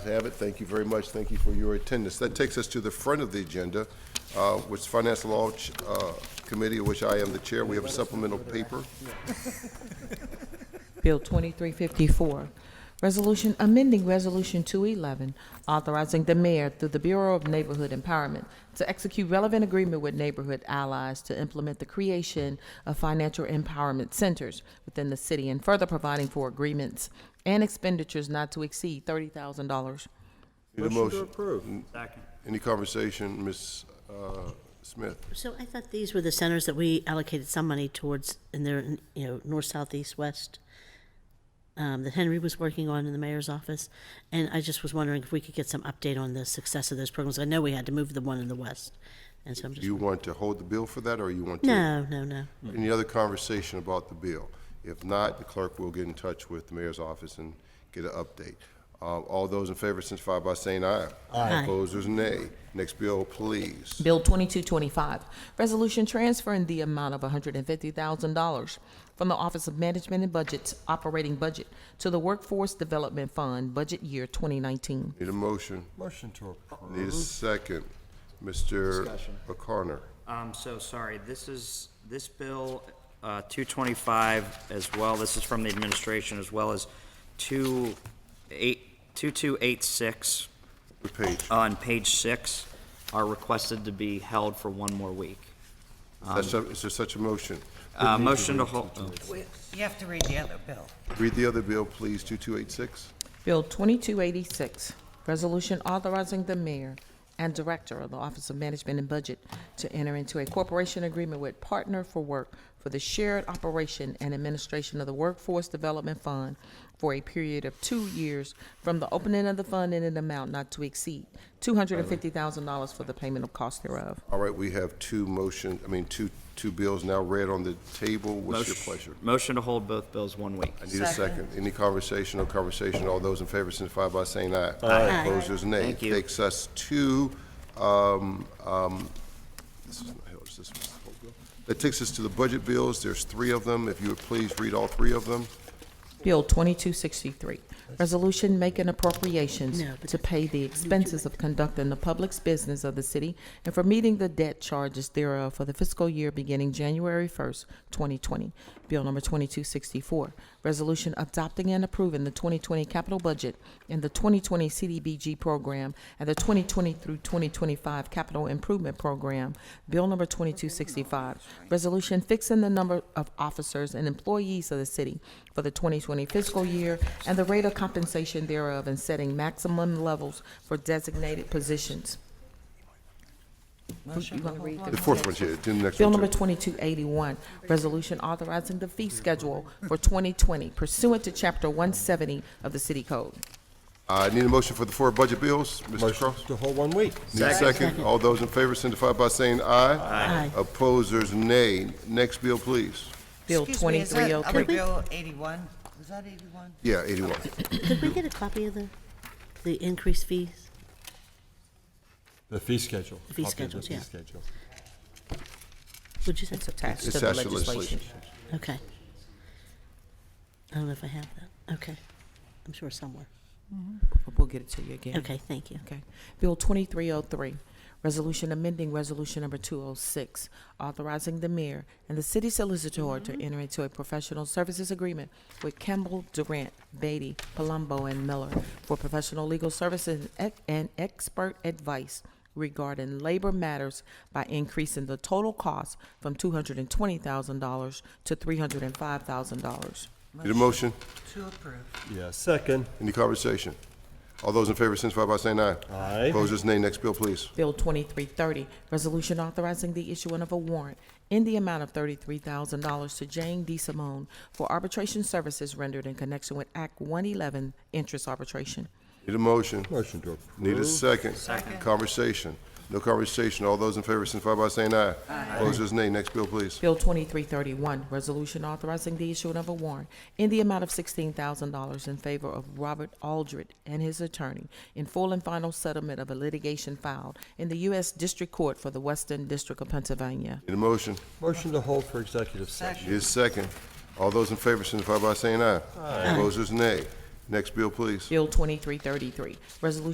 Have it. Thank you very much. Thank you for your attendance. That takes us to the front of the agenda, uh, which Finance Law uh, Committee, of which I am the chair. We have a supplemental paper. Bill 2354, Resolution amending Resolution 211, authorizing the mayor through the Bureau of Neighborhood Empowerment to execute relevant agreement with neighborhood allies to implement the creation of financial empowerment centers within the city and further providing for agreements and expenditures not to exceed $30,000. Need a motion? approve. Second. Any conversation, Ms. uh, Smith? So I thought these were the centers that we allocated some money towards in their, you know, north, south, east, west, um, that Henry was working on in the mayor's office. And I just was wondering if we could get some update on the success of those programs. I know we had to move the one in the west. And so I'm Do just, you want to hold the bill for that, or you want to? no, no, no. Any other conversation about the bill? If not, the clerk will get in touch with the mayor's office and get an update. Uh, All those in favor signify by saying aye. Aye. Opposers, nay. Next bill, please. Bill 2225, resolution transferring the amount of $150,000 from the Office of Management and Budget's operating budget to the Workforce Development Fund, budget year 2019. Need a motion? Motion to approve. Need a second. Mr. O'Connor. I'm so sorry. This is, this bill, uh, 225 as well, this is from the administration, as well as 28 2286 What page? on page six are requested to be held for one more week. Is there- is there such a motion? Uh, Motion to hold, Oh, Wait, You have to read the other bill. Read the other bill, please, 2286. Bill 2286, resolution authorizing the mayor and director of the Office of Management and Budget to enter into a corporation agreement with Partner for Work for the shared operation and administration of the Workforce Development Fund for a period of two years from the opening of the fund in an amount not to exceed $250,000 for the payment of cost thereof. All right, we have two motion, I mean, two, two bills now read on the table. What's your Motion- pleasure? oh, Motion to hold both bills one week. I Need a second. Any conversation or conversation? All those in favor signify by saying aye. Aye. Opposers, nay. Thank you. Takes us to, um, um, this is not Hill's, this is the whole bill. That takes us to the budget bills. There's three of them. If you would please read all three of them. Bill 2263, resolution making appropriations No, but to pay the expenses of conducting the public's business of the city and for meeting the debt charges thereof for the fiscal year beginning January 1st, 2020. Bill number 2264, resolution adopting and approving the 2020 capital budget and the 2020 CDBG program and the 2020 through 2025 capital improvement program. Bill number 2265, resolution fixing the number of officers and employees of the city for the 2020 fiscal year and the rate of compensation thereof and setting maximum levels for designated positions. Motion to read The fourth one's here, the next Bill one. number too. 2281, resolution authorizing the fee schedule for 2020 pursuant to Chapter 170 of the City Code. I Uh, need a motion for the four budget bills. Mr. Motion Cross? to hold one week. Need a second. All those in favor signify by saying aye. Aye. Opposers, nay. Next bill, please. Bill Excuse me, is that 2303. Other bill eighty-one, was that eighty-one? Yeah, 81. Could we get a copy of the, the increased fees? The fee schedule. The fee Copy of schedules, yeah. The fee schedule. Would you say? It's attached It's to the attached to the legislation. legislation. Okay. I don't know if I have that. Okay. I'm sure somewhere. We'll get it to you again. Okay, thank you. Okay. Bill 2303, resolution amending resolution number 206, authorizing the mayor and the city solicitor to enter into a professional services agreement with Campbell, Durant, Beatty, Palumbo, and Miller for professional legal services and ec- and expert advice regarding labor matters by increasing the total cost from $220,000 to $305,000. Need a motion? To approve. Yeah, second. Any conversation? All those in favor signify by saying aye. Aye. Opposers, nay. Next bill, please. Bill 2330, resolution authorizing the issuing of a warrant in the amount of $33,000 to Jane D. Simone for arbitration services rendered in connection with Act 111 interest arbitration. Need a motion? Motion to approve. Need a second? Second. Conversation? No conversation. All those in favor signify by saying aye. Aye. Opposers, nay. Next bill, please. Bill 2331, resolution authorizing the issuing of a warrant in the amount of $16,000 in favor of Robert Aldred and his attorney in full and final settlement of a litigation filed in the U.S. District Court for the Western District of Pennsylvania. Need a motion? Motion to hold for executive session. Need a second? All those in favor signify by saying aye. Aye. Opposers, nay. Next bill, please. Bill 2333, Resolution